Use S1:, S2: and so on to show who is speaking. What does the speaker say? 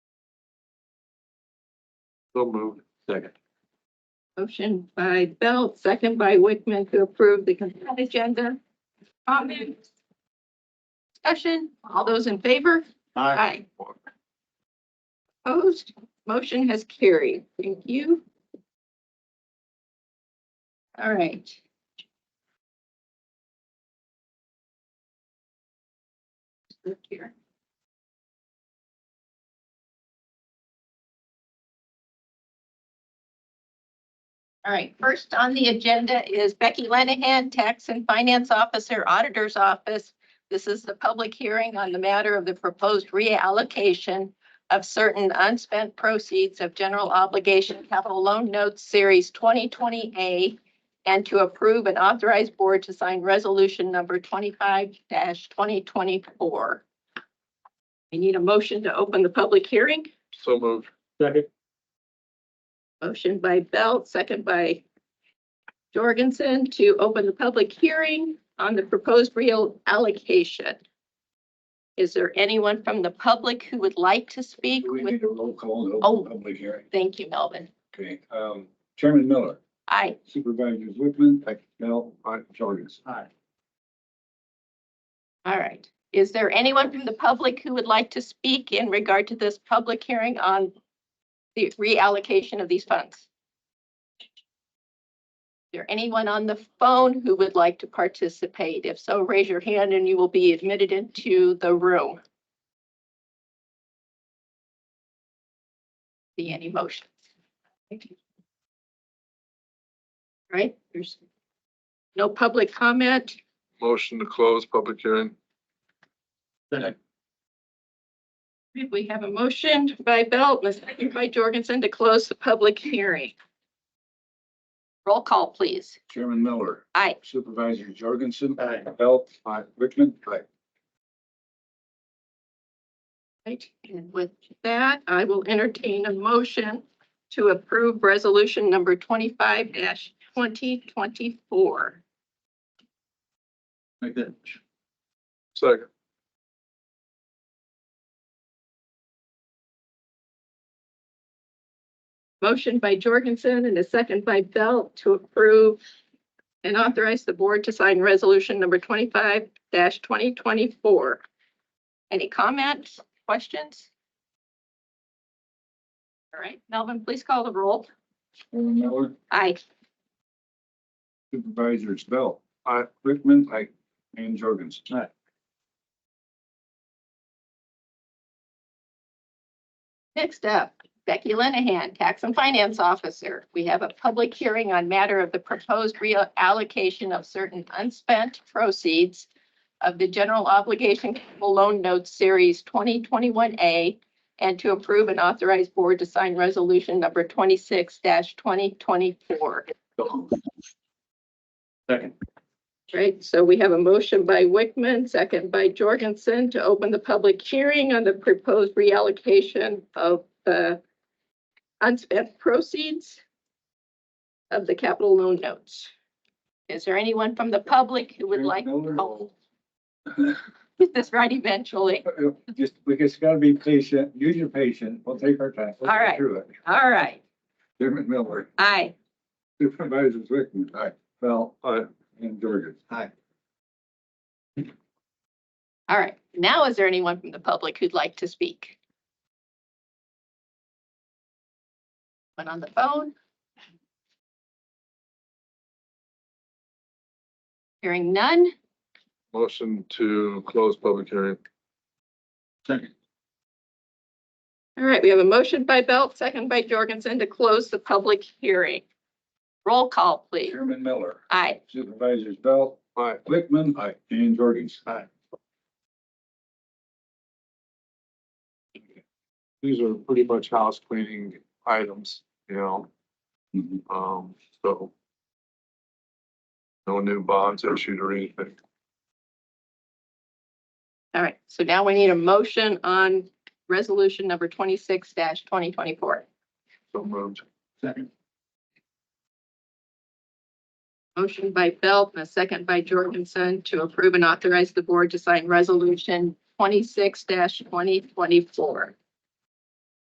S1: So moved. Second.
S2: Motion by Belt, second by Wickman to approve the consent agenda. Comments? Discussion, all those in favor? Aye. Opposed, motion has carried. Thank you. All right. Look here. All right, first on the agenda is Becky Lenahan, Tax and Finance Officer, Auditor's Office. This is the public hearing on the matter of the proposed reallocation of certain unspent proceeds of general obligation capital loan notes series 2020A and to approve and authorize board to sign resolution number 25-2024. I need a motion to open the public hearing.
S1: So moved. Second.
S2: Motion by Belt, second by Jorgensen to open the public hearing on the proposed real allocation. Is there anyone from the public who would like to speak?
S3: Do we
S2: with-
S3: need a roll call to
S2: Oh.
S3: open public hearing?
S2: Thank you, Melvin.
S3: Okay, um, Chairman Miller,
S2: Aye.
S3: Supervisors Wickman,
S1: Aye.
S3: Bell, Jorgensen. Aye.
S2: All right. Is there anyone from the public who would like to speak in regard to this public hearing on the reallocation of these funds? Is there anyone on the phone who would like to participate? If so, raise your hand and you will be admitted into the room. See any motions? Thank you. All Right, there's no public comment.
S1: Motion to close public hearing.
S2: We have a motion by Belt, a second by Jorgensen to close the public hearing. Roll call, please.
S3: Chairman Miller.
S2: Aye.
S3: Supervisor Jorgensen.
S1: Aye.
S3: Bell. Wickman. Aye.
S2: Right, and with that, I will entertain a motion to approve resolution number twenty-five twenty twenty-four.
S3: Make that.
S1: Second.
S2: Motion by Jorgensen and a second by Belt to approve and authorize the board to sign resolution number twenty-five twenty twenty-four. Any comments, questions? All right, Melvin, please call the roll.
S3: Chairman Miller,
S2: Aye.
S3: Supervisors Bell.
S1: Aye.
S3: Wickman. Aye. And Jorgensen. Aye.
S2: Next up, Becky Lenahan, Tax and Finance Officer. We have a public hearing on matter of the proposed reallocation of certain unspent proceeds of the general obligation capital loan note series 2021A and to approve and authorize board to sign resolution number 26-2024.
S3: Second.
S2: Right, so we have a motion by Wickman, second by Jorgensen to open the public hearing on the proposed reallocation of the unspent proceeds of the capital loan notes. Is there anyone from the public who would like?
S3: Chairman Miller.
S2: Oh, Get this right eventually.
S3: Uh, Just, we just gotta be patient, use your patience, we'll take our time. We'll
S2: All
S3: get
S2: right.
S3: Through it.
S2: All right,
S3: Chairman Miller,
S2: aye.
S3: Supervisors Wickman. Aye. Bell.
S1: Aye.
S3: And Jorgensen. Aye.
S2: All right, now is there anyone from the public who'd like to speak? One on the phone? Hearing none,
S1: Motion to close public hearing.
S3: Second.
S2: all right, we have a motion by Belt, second by Jorgensen to close the public hearing. Roll call, please.
S3: Chairman Miller.
S2: Aye.
S3: Supervisors Bell.
S1: Aye.
S3: Wickman. Aye. And Jorgens. Aye.
S1: These are pretty much house cleaning items, you know,
S3: Mm-hmm.
S1: um, so. No new bonds issued or anything.
S2: All right, so now we need a motion on resolution number twenty-six twenty twenty-four.
S1: So moved.
S3: Second.
S2: Motion by Belt and a second by Jorgensen to approve and authorize the board to sign resolution twenty-six twenty twenty-four.